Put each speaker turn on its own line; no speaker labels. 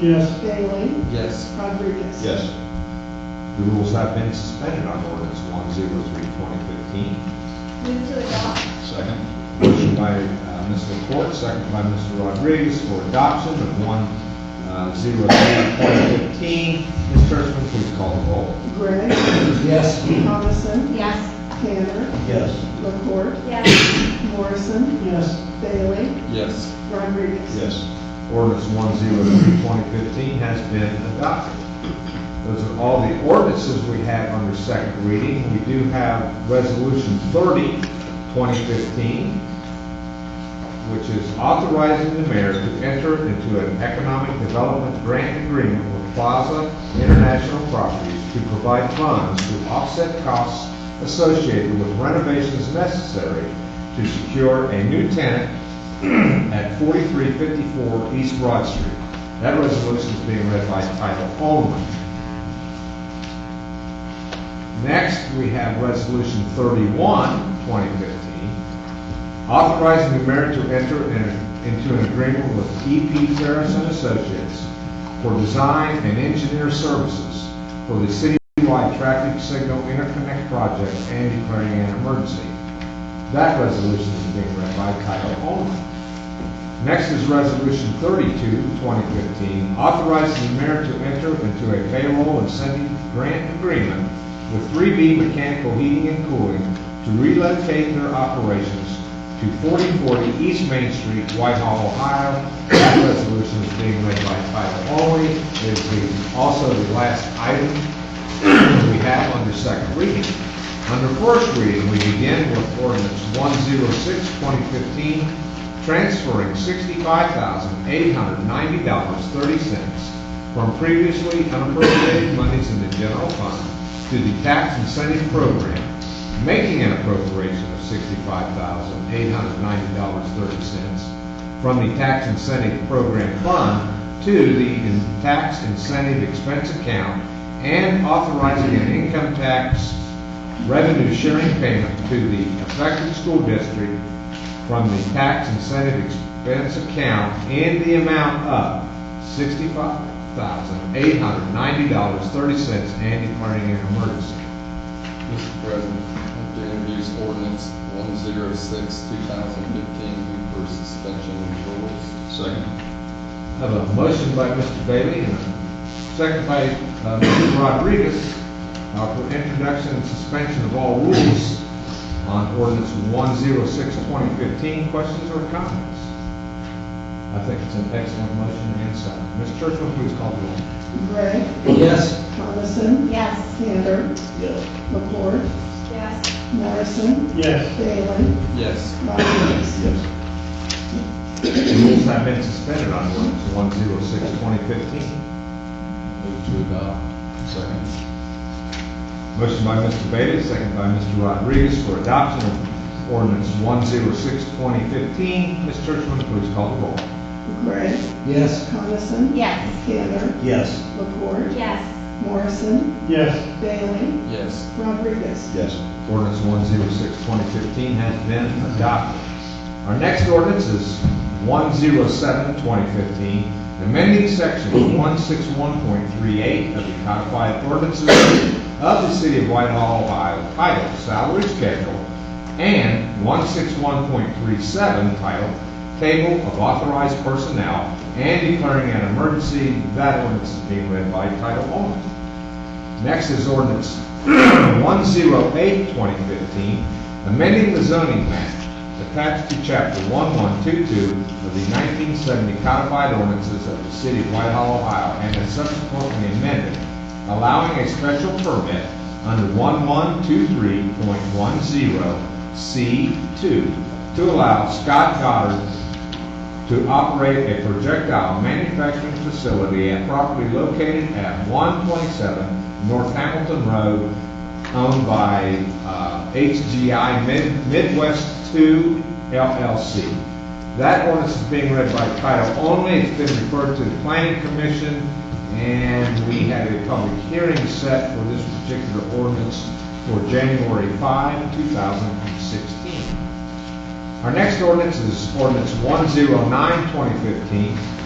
Yes.
Bailey?
Yes.
Rodriguez?
Yes. The rules have been suspended on ordinance 103-2015.
Move to adopt.
Second. Motion by uh, Ms. LaCourt, second by Mr. Rodriguez for adoption of uh, 103-2015. Ms. Churchman, please call the roll.
Gregg?
Yes.
Coniston?
Yes.
Tanner?
Yes.
LaCourt?
Yes.
Morrison?
Yes.
Bailey?
Yes.
Rodriguez?
Yes. Ordinance 103-2015 has been adopted. Those are all the ordinances we have under second reading. We do have Resolution 30-2015, which is authorizing the mayor to enter into an economic development grant agreement with Plaza International Properties to provide funds to offset costs associated with renovations necessary to secure a new tenant at 4354 East Broad Street. That resolution is being read by title only. Next, we have Resolution 31, 2015, authorizing the mayor to enter in- into an agreement with E.P. Ferris and Associates for design and engineer services for the citywide traffic signal interconnect project and declaring an emergency. That resolution is being read by title only. Next is Resolution 32, 2015, authorizing the mayor to enter into a payroll and sending grant agreement with 3B Mechanical Heating and Cooling to relocate their operations to 4040 East Main Street, Whitehall, Ohio. That resolution is being read by title only. It is the- also the last item we have under second reading. Under first reading, we begin with ordinance 106, 2015, transferring $65,890.30 from previously unappropriated monies in the general fund to the tax incentive program, making an appropriation of $65,890.30 from the tax incentive program fund to the in- tax incentive expense account and authorizing an income tax revenue sharing payment to the affected school district from the tax incentive expense account in the amount of sixty-five thousand eight hundred ninety dollars thirty cents and declaring an emergency.
Mr. President, I'd like to introduce ordinance 106, 2015, move for suspension of rules.
Second. Have a motion by Mr. Bailey and a second by uh, Mr. Rodriguez uh, for introduction and suspension of all rules on ordinance 106, 2015. Questions or comments? I think it's an excellent motion and second. Ms. Churchman, please call the roll.
Gregg?
Yes.
Coniston?
Yes.
Tanner?
Yes.
LaCourt?
Yes.
Morrison?
Yes.
Bailey?
Yes.
Rodriguez?
The rules have been suspended on ordinance 106, 2015.
Move to adopt. Second.
Motion by Mr. Bailey, second by Mr. Rodriguez for adoption of ordinance 106, 2015. Ms. Churchman, please call the roll.
Gregg?
Yes.
Coniston?
Yes.
Tanner?
Yes.
LaCourt?
Yes.
Morrison?
Yes.
Bailey?
Yes.
Rodriguez?
Yes. Ordinance 106, 2015 has been adopted. Our next ordinance is 107, 2015, amending section 161.38 of the codified ordinances of the city of Whitehall, Ohio, titled Salary Schedule, and 161.37 titled Table of Authorized Personnel, and declaring an emergency. That ordinance is being read by title only. Next is ordinance 108, 2015, amending the zoning map attached to chapter 1122 of the 1970 codified ordinances of the city of Whitehall, Ohio, and is subsequently amended, allowing a special permit under 1123.10C2 to allow Scott Goddard to operate a projectile manufacturing facility at property located at 127 North Hamilton Road, owned by uh, HGI Mid- Midwest 2 LLC. That ordinance is being read by title only, it's been referred to the planning commission, and we have a public hearing set for this particular ordinance for January 5, 2016. Our next ordinance is ordinance 109, 2015,